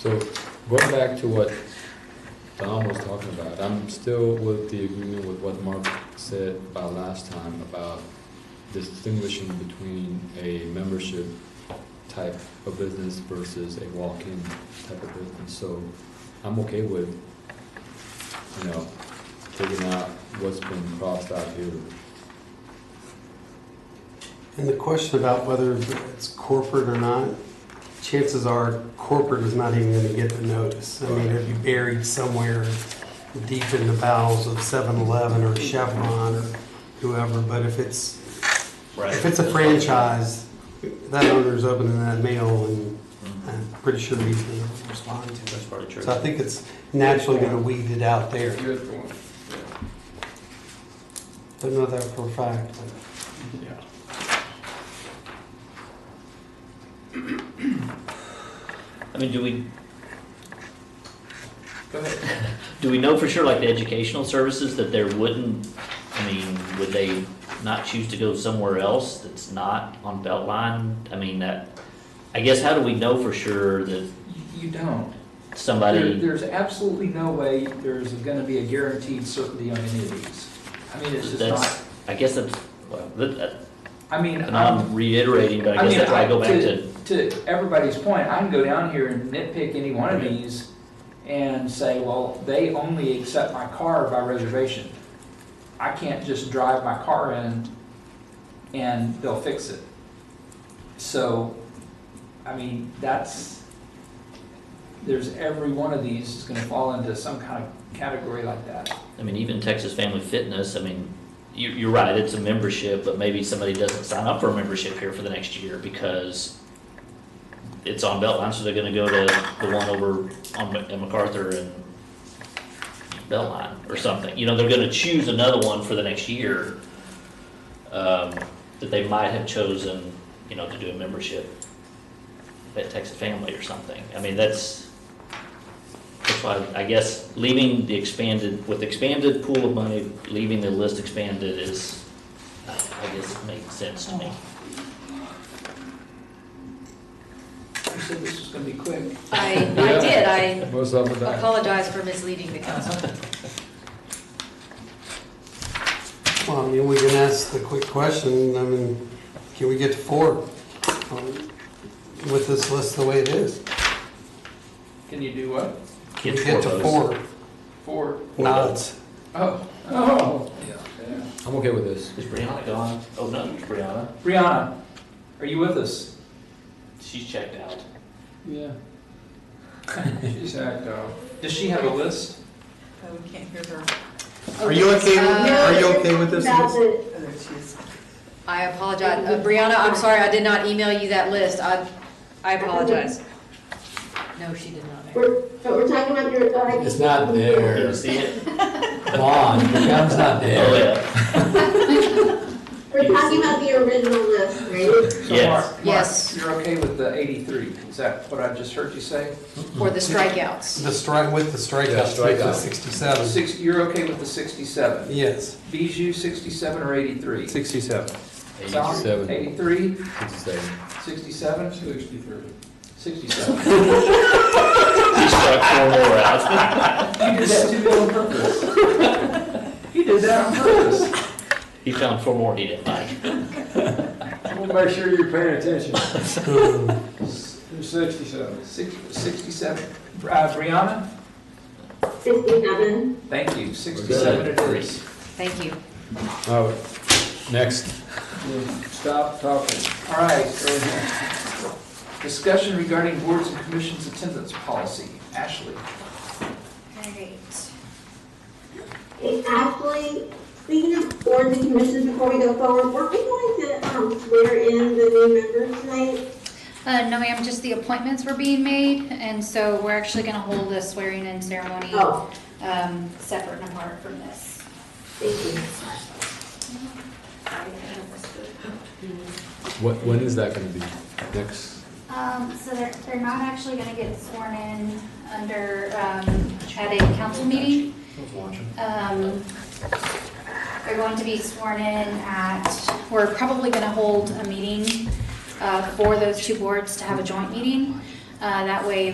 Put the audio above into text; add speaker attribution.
Speaker 1: So going back to what Don was talking about, I'm still with the agreement with what Mark said about last time about distinguishing between a membership type of business versus a walk-in type of business. So I'm okay with, you know, taking out what's been crossed out here.
Speaker 2: And the question about whether it's corporate or not, chances are corporate is not even gonna get the notice. I mean, it'd be buried somewhere deep in the bowels of 7-Eleven or Chevron or whoever. But if it's, if it's a franchise, that owner's opening that mail and I'm pretty sure he's gonna respond to
Speaker 3: That's part of
Speaker 2: it.
Speaker 3: church.
Speaker 2: So I think it's naturally gonna weed it out there.
Speaker 4: Good point.
Speaker 2: Don't know that for a fact, but.
Speaker 4: Yeah.
Speaker 3: I mean, do we,
Speaker 4: Go ahead.
Speaker 3: do we know for sure, like the educational services, that there wouldn't, I mean, would they not choose to go somewhere else that's not on Beltline? I mean, that, I guess, how do we know for sure that
Speaker 4: You- You don't. There-
Speaker 3: somebody,
Speaker 4: There's absolutely no way there's gonna be a guaranteed certainty on any of these. I mean, it's just not,
Speaker 3: that's, I guess that's, well, that- that-
Speaker 4: I mean,
Speaker 3: and
Speaker 4: I'm,
Speaker 3: I'm reiterating, but I guess
Speaker 4: mean,
Speaker 3: that's why I go back to,
Speaker 4: To everybody's point, I can go down here and nitpick any one of
Speaker 3: Right.
Speaker 4: these and say, well, they only accept my car by reservation. I can't just drive my car in and they'll fix it. So, I mean, that's, there's every one of these is gonna fall into some kind of category like that.
Speaker 3: I mean, even Texas Family Fitness, I mean, you, you're right, it's a membership, but maybe somebody doesn't sign up for a membership here for the next year because it's on Beltline, so they're gonna go to the one over on Mc- at MacArthur and Beltline or something. You know, they're gonna choose another one for the next year, um, that they might have chosen, you know, to do a membership at Texas Family or something. I mean, that's, that's why, I guess, leaving the expanded, with expanded pool of money, leaving the list expanded is, I guess, makes sense to me.
Speaker 4: You said this was gonna be quick.
Speaker 5: I, I did, I
Speaker 1: Most of it, I-
Speaker 5: apologize for misleading the council.
Speaker 2: Well, I mean, we can ask the quick question, I mean, can we get to four um, with this list the way it is?
Speaker 4: Can you do what?
Speaker 2: Can we get to four
Speaker 4: Four?
Speaker 2: nods?
Speaker 4: Oh, oh. Yeah.
Speaker 1: I'm okay with this.
Speaker 3: Is Brianna gone? Oh, no, it's Brianna,
Speaker 4: Brianna, are you with us?
Speaker 3: she's checked out.
Speaker 4: Yeah. She's uh, act out. Does she have a list?
Speaker 5: Oh, we can't hear her.
Speaker 2: Are you okay, with-
Speaker 5: Uh,
Speaker 2: are you okay with this
Speaker 6: Now
Speaker 2: list?
Speaker 6: that-
Speaker 5: Oh, I apologize. Uh, Brianna, I'm sorry, I did not email you that list. I, I apologize. No, she did not. make it.
Speaker 6: We're, but we're talking about your. uh,
Speaker 7: It's not
Speaker 3: You
Speaker 7: there.
Speaker 3: didn't see it?
Speaker 7: Come on, the gun's not
Speaker 3: Oh,
Speaker 7: there.
Speaker 3: yeah,
Speaker 6: We're talking about the original list, right?
Speaker 4: So,
Speaker 3: Yes.
Speaker 4: Mark- Mark,
Speaker 5: Yes.
Speaker 4: You're okay with the 83, is that what I just heard you say?
Speaker 5: For the strikeouts.
Speaker 2: The strike, with the
Speaker 1: Yeah,
Speaker 2: strikeouts,
Speaker 1: strikeout.
Speaker 2: with the sixty-seven,
Speaker 4: Six, you're okay with the 67?
Speaker 2: yes.
Speaker 4: Bijou, 67 or 83?
Speaker 2: Sixty-seven.
Speaker 4: Sal,
Speaker 1: 87.
Speaker 4: 83,
Speaker 1: Good to say.
Speaker 4: 67? 63. 67.
Speaker 3: she struck four more out.
Speaker 4: You did that to me on purpose. You did that on purpose.
Speaker 3: He found four more he didn't like.
Speaker 7: Make sure you're paying attention. Sixty-seven.
Speaker 4: Six- 67. Uh, Brianna,
Speaker 6: Sixty-seven.
Speaker 4: thank you, 67 it is.
Speaker 5: Thank you.
Speaker 1: All right, Oh, next.
Speaker 4: Stop talking. All right. Discussion regarding boards and commissions attendance policy. Ashley.
Speaker 5: All right.
Speaker 6: Okay, Ashley, speaking of boards and commissions, before we go forward, were we going to, um, swear in the new members tonight?
Speaker 8: Uh, no, ma'am, just the appointments were being made, and so we're actually gonna hold the swearing-in ceremony,
Speaker 6: Oh,
Speaker 8: um, separate and apart from this.
Speaker 6: thank you.
Speaker 1: What, when is that gonna be? Next?
Speaker 8: Um, so they're, they're not actually gonna get sworn in under, um, at a council meeting. Um, they're going to be sworn in at, we're probably gonna hold a meeting, uh, for those two boards to have a joint meeting. Uh, that way